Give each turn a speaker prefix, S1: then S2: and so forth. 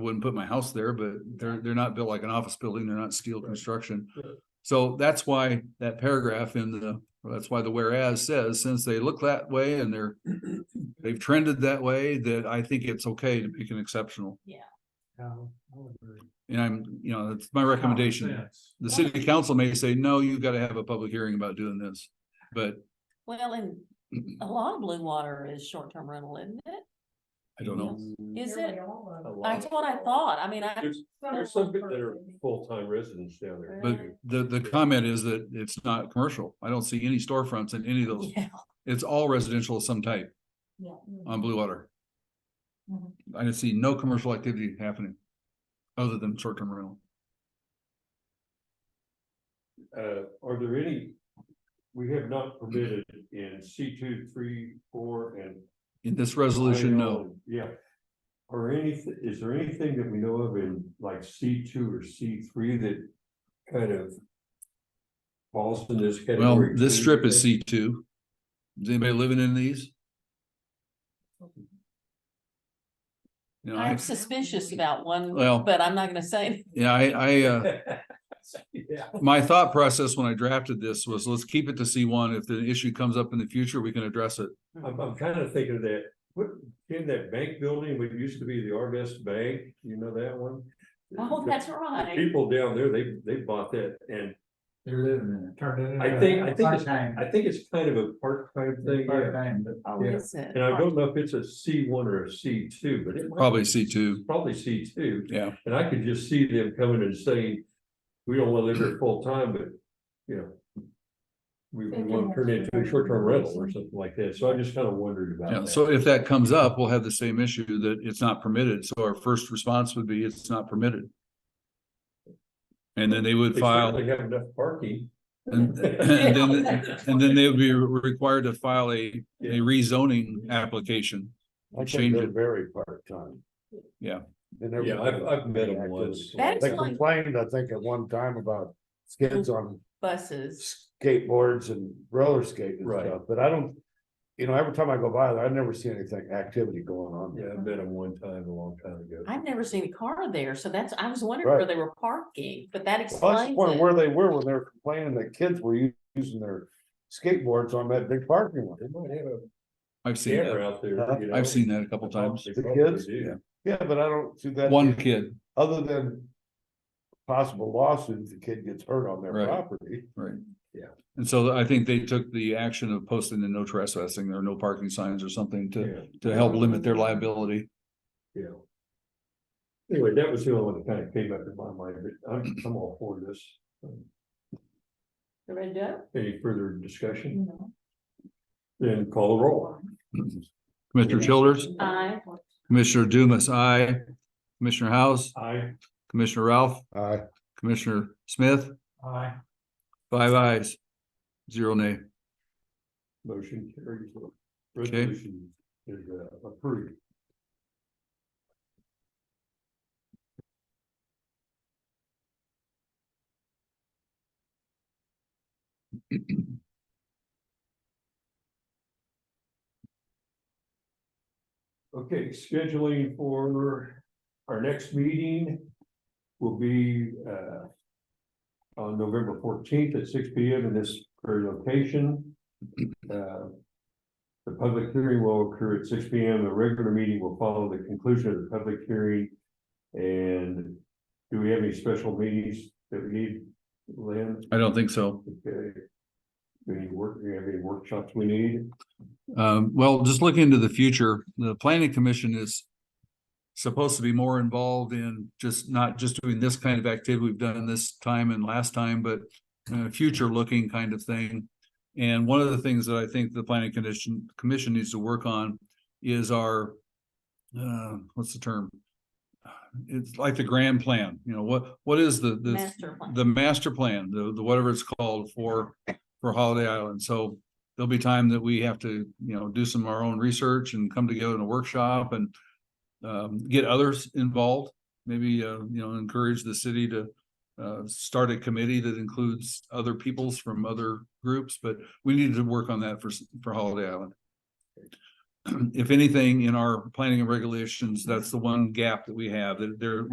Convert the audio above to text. S1: wouldn't put my house there, but they're, they're not built like an office building. They're not steel construction. So that's why that paragraph in the, that's why the whereas says, since they look that way and they're, they've trended that way, that I think it's okay to make an exceptional. And I'm, you know, that's my recommendation. The city council may say, no, you've got to have a public hearing about doing this. But
S2: Well, and a lot of Blue Water is short-term rental, isn't it?
S1: I don't know.
S2: Is it? That's what I thought. I mean, I,
S3: There's, Oh, there's some people that are full-time residents down there.
S1: But the, the comment is that it's not commercial. I don't see any storefronts in any of those.
S2: yeah,
S1: It's all residential of some type on Blue Water.
S2: Mhm.
S1: I didn't see no commercial activity happening other than short-term rental.
S3: Uh, are there any, we have not permitted in C two, three, four, and.
S1: In this resolution, no.
S3: Yeah. Or anything, is there anything that we know of in like C two or C three that kind of falls in this
S1: Well,
S3: category?
S1: this
S3: too?
S1: strip is C two. Is anybody living in these? You know, I,
S2: I'm suspicious about one,
S1: Well-
S2: but I'm not gonna say.
S1: yeah, I, I, uh,
S3: Yeah.
S1: my thought process when I drafted this was, let's keep it to C one. If the issue comes up in the future, we can address it.
S3: I'm, I'm kind of thinking of that, what, in that bank building, what used to be the Arvest Bank, you know that one?
S2: Oh, that's
S3: The
S2: right.
S3: People down there, they, they bought that, and
S4: They're living in it. Turned it.
S3: I think- I think it's-
S4: Part-time.
S3: I think it's kind of a part-time thing, yeah.
S4: Part-time, but.
S2: Oh,
S3: Yeah.
S2: is it?
S3: And I don't know if it's a C one or a C two, but it. might-
S1: Probably C two.
S3: Probably C two,
S1: Yeah,
S3: and I could just see them coming and saying, we don't want to live here full-time, but, you know. We, we want to turn it into a short-term rental or something like that, so I just kind of wondered about
S1: yeah.
S3: that.
S1: So if that comes up, we'll have the same issue that it's not permitted. So our first response would be it's not permitted. And then they would
S3: They
S1: file.
S3: certainly have enough parking.
S1: And, and then, and then they would be required to file a, a
S3: Yeah.
S1: rezoning application.
S5: I think
S1: Change
S5: they're
S1: it.
S5: very part-time.
S1: Yeah.
S5: They never-
S3: Yeah, I've- I've met 'em once.
S2: That's
S5: They
S2: like-
S5: complained, I think, at one time about kids on
S2: Buses.
S5: skateboards and roller skating and
S3: Right.
S5: stuff, but I don't. You know, every time I go by there, I never see anything, activity going on.
S3: Yeah,
S5: there.
S3: I met him one time a long time ago.
S2: I've never seen a car there, so that's, I was wondering
S5: Right.
S2: where they were parking, but that
S5: Well, I
S2: explains
S5: just wondered
S2: it.
S5: where they were when they were complaining that kids were u- using their skateboards on that big parking lot.
S3: They might have a
S1: I've seen
S3: camera
S1: that.
S3: out there. you know.
S1: I've seen that a couple times.
S3: They
S5: The
S3: probably
S5: kids?
S3: do.
S1: Yeah.
S5: Yeah, but I don't see that.
S1: One kid,
S5: Other than possible lawsuit, if the kid gets hurt on their
S1: Right.
S5: property.
S1: right?
S3: Yeah.
S1: And so I think they took the action of posting the no trespassing or no parking signs or something to,
S3: Yeah,
S1: to help limit their liability.
S3: yeah. Anyway, that was the only one that kind of came up in my mind, but I'm, I'm all for this.
S2: You Ready to
S3: Any further discussion?
S2: go?
S3: Then call the roll.
S1: Commissioner Childers,
S2: Aye.
S1: Commissioner Dumas, aye. Commissioner House,
S3: I,
S1: Commissioner Ralph,
S5: Uh,
S1: Commissioner Smith,
S4: Aye.
S1: five ayes, zero nay.
S3: motion carries. Resolution is uh, approved. Okay, scheduling for our next meeting will be uh. On November fourteenth at six P M in this very location. Uh, The public hearing will occur at six P M. The regular meeting will follow the conclusion of the public hearing. And do we have any special meetings that we need, Lynn?
S1: I don't think so.
S3: Okay. Any work, do we have any workshops we need?
S1: Um, well, just looking into the future, the planning commission is supposed to be more involved in just not just doing this kind of activity we've done this time and last time, but uh, future looking kind of thing. And one of the things that I think the planning condition commission needs to work on is our uh, what's the term? It's like the grand plan, you know, what, what is the, the
S2: Master plan.
S1: the master plan, the, the whatever it's called for, for Holiday Island. So there'll be time that we have to, you know, do some of our own research and come together in a workshop and um, get others involved, maybe, uh, you know, encourage the city to uh, start a committee that includes other peoples from other groups, but we need to work on that for, s- for Holiday Island. if anything, in our planning and regulations, that's the one gap that we have, that there,